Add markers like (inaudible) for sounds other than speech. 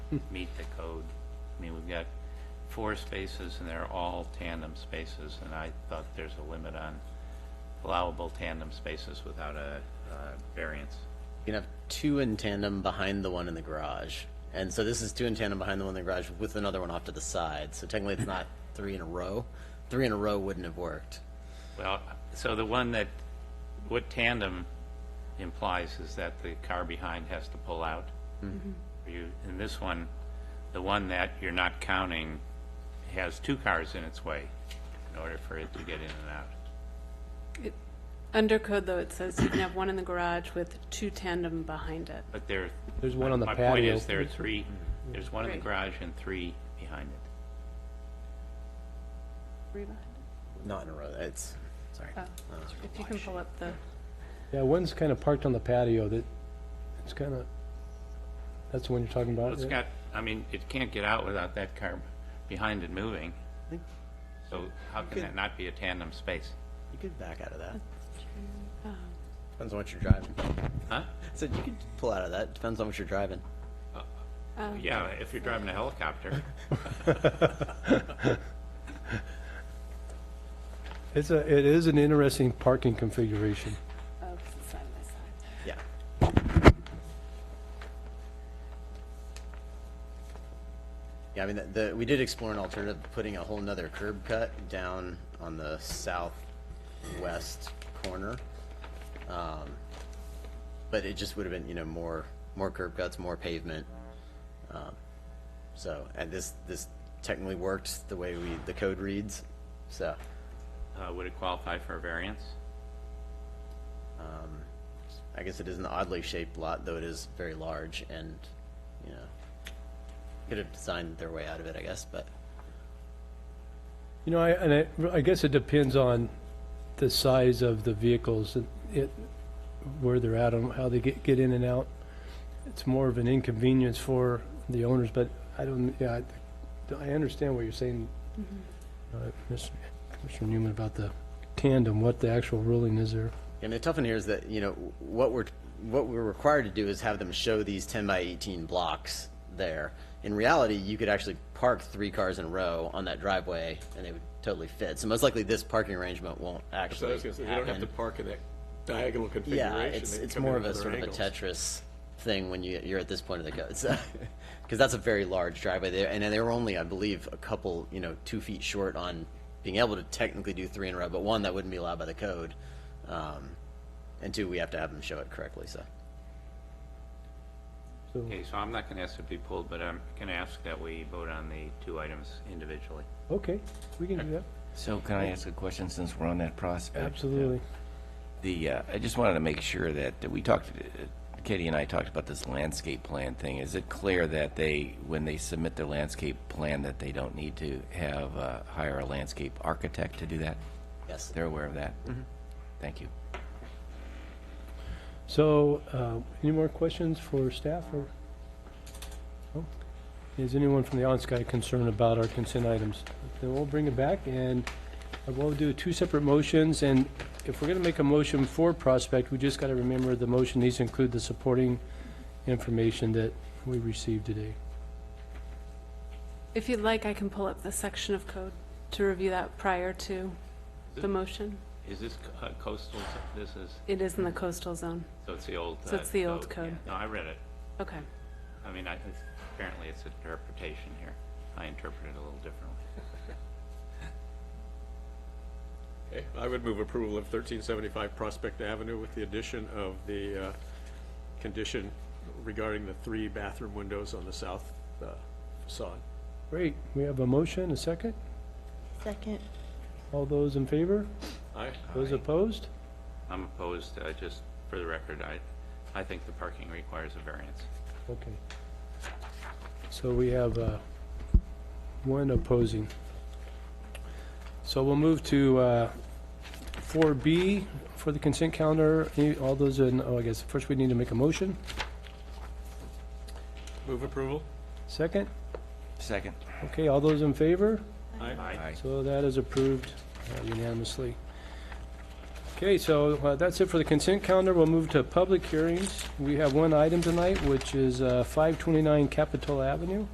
(laughs) meet the code. I mean, we've got four spaces and they're all tandem spaces, and I thought there's a limit on allowable tandem spaces without a uh, variance. You can have two in tandem behind the one in the garage. And so this is two in tandem behind the one in the garage with another one off to the side. So technically it's (laughs) not three in a row. Three in a row wouldn't have worked. Well, so the one that, what tandem implies is that the car behind has to pull out. You, in this one, the one that you're not counting has two cars in its way in order for it to get in and out. Under code, though, it says you can have one in the garage with two tandem behind it. But there. There's one on the My point patio. is there are three, there's one in the Right. garage and three behind it. Three behind it? Not in a row. It's, sorry. Oh, If you can pull up the, Yeah, one's kind of parked on the patio that, it's kind of, that's the one you're talking about? It's right? got, I mean, it can't get out without that car behind it moving. think- So how can that not be a tandem space? You could back out of that. oh, Depends on what you're driving. Huh? So you could pull out of that. Depends on what you're driving. oh, Yeah, if you're driving a helicopter. (laughs) It's a, it is an interesting parking configuration. oh, 'cause it's side by side. Yeah. Yeah, I mean, the- the, we did explore an alternative, putting a whole nother curb cut down on the southwest corner. Um, But it just would have been, you know, more, more curb cuts, more pavement. Um, So, and this, this technically worked the way we, the code reads, so. Uh, Would it qualify for a variance? Um, I guess it is an oddly shaped lot, though it is very large and, you know, could have designed their way out of it, I guess, but You know, I, and I, I guess it depends on the size of the vehicles, and it, where they're at and how they get, get in and out. It's more of an inconvenience for the owners, but I don't, yeah, I, I understand what you're saying, uh, Mr. Mr. Newman, about the tandem, what the actual ruling is there. I mean, the tough one here is that, you know, what we're, what we're required to do is have them show these ten by eighteen blocks there. In reality, you could actually park three cars in a row on that driveway and they would totally fit. So most likely this parking arrangement won't So actually I was gonna say, they don't have to happen. park in that diagonal configuration. Yeah, it's, They can it's come in more of a other sort of a angles. Tetris thing when you, you're at this point of the (laughs) code, so. Because that's a very large driveway there, and they were only, I believe, a couple, you know, two feet short on being able to technically do three in a row, but one, that wouldn't be allowed by the code. Um, and two, we have to have them show it correctly, so. So, Okay, so I'm not going to ask it to be pulled, but I'm going to ask that we vote on the two items individually. okay, we can do that, So can I ask a question since we're on that prospect? absolutely. The, uh, I just wanted to make sure that, that we talked, uh, Katie and I talked about this landscape plan thing. Is it clear that they, when they submit their landscape plan, that they don't need to have, uh, hire a landscape architect to do that? Yes. They're aware of that? Thank you. So, uh, any more questions for staff or? No? Is anyone from the on-sky concerned about our consent items? Then we'll bring it back and uh, we'll do two separate motions. And if we're going to make a motion for Prospect, we just got to remember the motion needs to include the supporting information that we received today. If you'd like, I can pull up the section of code to review that prior to the motion. Is this co- uh, coastal, this is, It is in the coastal zone. so it's the old. So uh, it's the old code. yeah. No, I read it. Okay. I mean, I, it's- apparently it's interpretation here. I interpret it a little differently. Okay, I would move approval of thirteen seventy-five Prospect Avenue with the addition of the, uh, condition regarding the three bathroom windows on the south uh, facade. Great, we have a motion, a second. Second. All those in favor? Aye? Those opposed? I'm opposed, I just, for the record, I, I think the parking requires a variance. Okay. So we have uh, one opposing. So we'll move to uh, 4B for the consent calendar. Any- All those in, oh, I guess first we need to make a motion. Move approval? Second? Second. Okay, all those in favor? Aye. Aye. So that is approved uh, unanimously. Okay, so uh, that's it for the consent calendar. We'll move to public hearings. We have one item tonight, which is uh, 529 Capitol Avenue.